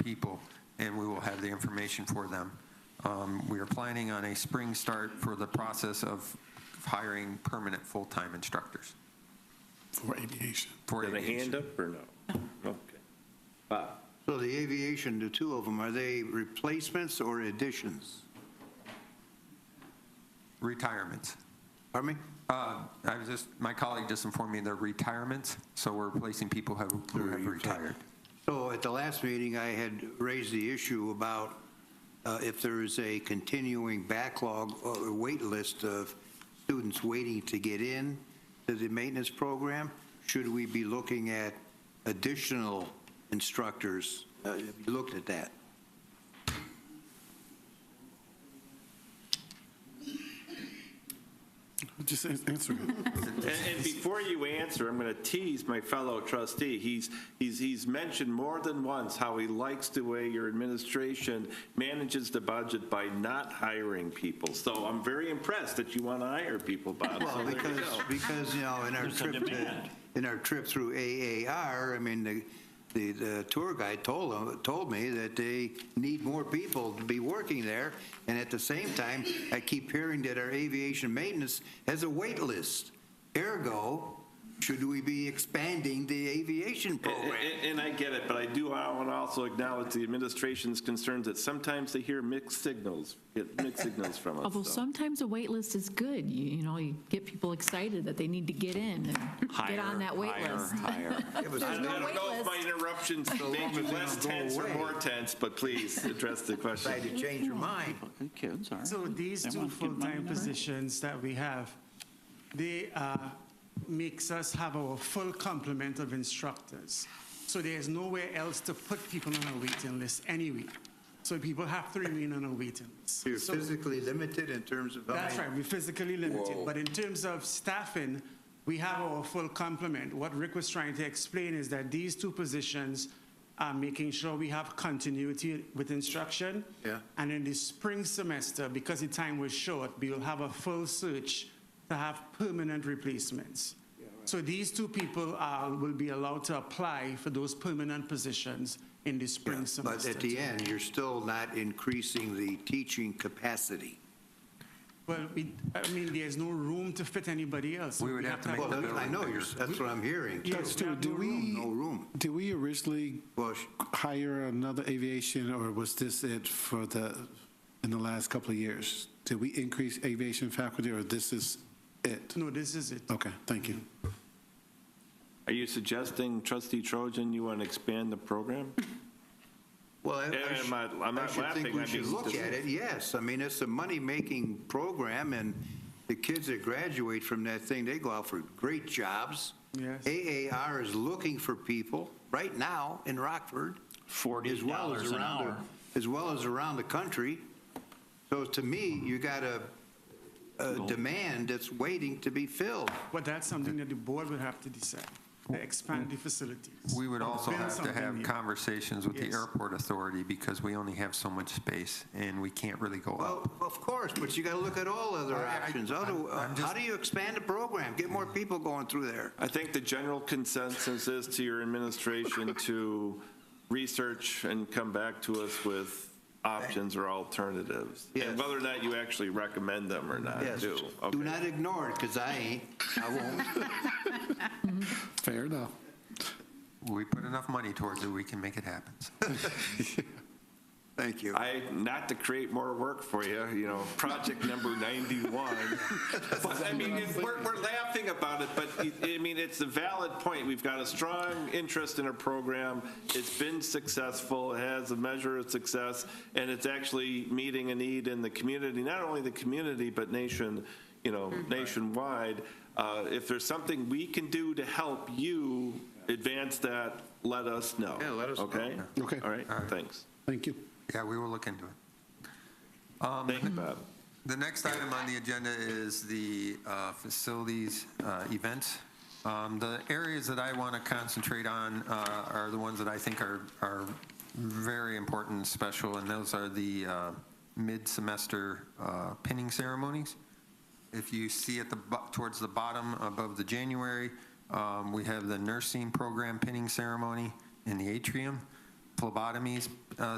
people, and we will have the information for them. Um, We are planning on a spring start for the process of hiring permanent full-time instructors for aviation. for Have a hand aviation. up or no? Okay. Bob? So the aviation, the two of them, are they replacements or additions? Retirements. Pardon me? Uh, I was just, my colleague just informed me they're retirements, so we're replacing people who have- who have retired. So at the last meeting, I had raised the issue about uh, if there is a continuing backlog or wait list of students waiting to get in to the maintenance program, should we be looking at additional instructors? Uh, Have you looked at that? Just an- answer it. And, and before you answer, I'm going to tease my fellow trustee. He's, he's, he's mentioned more than once how he likes the way your administration manages the budget by not hiring people. So I'm very impressed that you want to hire people, Bob. So Well, there you because, go. because, you know, in our There's a trip, to- demand. in our trip through AAR, I mean, the, the the tour guide told them, told me that they need more people to be working there, and at the same time, I keep hearing that our aviation maintenance has a wait list. Ergo, should we be expanding the aviation And- program? and- And I get it, but I do want to also acknowledge the administration's concerns that sometimes they hear mixed signals, get mixed signals from us. Although so. Oh, sometimes a wait list is good, you you know, you get people excited that they need to get in and get on that wait Higher, list. Higher, higher. It was- I I no don't know wait if my list. interruptions So long made as you they less don't go tense or away. more tense, but please address the question. Decided to change your mind. Fucking Kids are. So these They two want to get money full-time never ends. positions that we have, they uh, makes us have our full complement of instructors. So there's nowhere else to put people on a waiting list anyway. So people have to remain on a waiting list. You're So- physically limited in terms of. how That's many- right, we're physically limited. But in terms of staffing, we have our full complement. What Rick was trying to explain is that these two positions are making sure we have continuity with instruction. Yeah. And in the spring semester, because the time was short, we'll have a full search to have permanent replacements. So these two people are, will be allowed to apply for those permanent positions in the Yeah, spring But semester. at the end, you're still not increasing the teaching capacity. Well, we, I mean, there's no room to fit anybody else. We would have to make Well, the that- I building know, you're- bigger. that's what I'm hearing. too. Yes, Stu, do we? No room. Did we originally Well, sh- hire another aviation, or was this it for the, in the last couple of years? Did we increase aviation faculty, or this is it? No, this is it. Okay, thank you. Are you suggesting, trustee Trojan, you want to expand the program? well, I- Yeah, I I'm sh- not- I'm I not should think laughing, we I'm should being look at it, yes. I mean, it's a money-making program, and the kids that graduate from that thing, they go out for great jobs. Yes. AAR is looking for people right now in Rockford. as well as $40 an around the- hour. As well as around the country. So to me, you got a, a demand that's waiting to be filled. But that's something that the board would have to decide, to expand the facilities. We would also Build have to something have new. conversations with the Yes. airport authority because we only have so much space and we can't really go Well, up. of course, but you got to look at all other I- I- options. How do, I'm- I'm how just- do you expand the program? Get more people going through there? I think the general consensus is to your administration to research and come back to us with options or alternatives. Yes. And whether or not you actually recommend them or not, Yes. do. Do not ignore it, because I ain't, I won't. Fair enough. We put enough money towards it, we can make it happen. so. Thank you. I, not to create more work for you, you know, project number 91. But I mean, it- we're, we're laughing about it, but it- I mean, it's a valid point. We've got a strong interest in a program. It's been successful, it has a measure of success, and it's actually meeting a need in the community, not only the community, but nation, you know, nationwide. Uh, If there's something we can do to help you advance that, let us know. Yeah, let us know. Okay? Okay. All right, All right. thanks. Thank you. Yeah, we will look into it. Um, Thank you, Bob. The next item on the agenda is the uh, facilities uh, events. Um, The areas that I want to concentrate on uh, are the ones that I think are, are very important and special, and those are the uh, mid-semester uh, pinning ceremonies. If you see at the, bo- towards the bottom above the January, um, we have the nursing program pinning ceremony in the atrium. phlebotomies uh,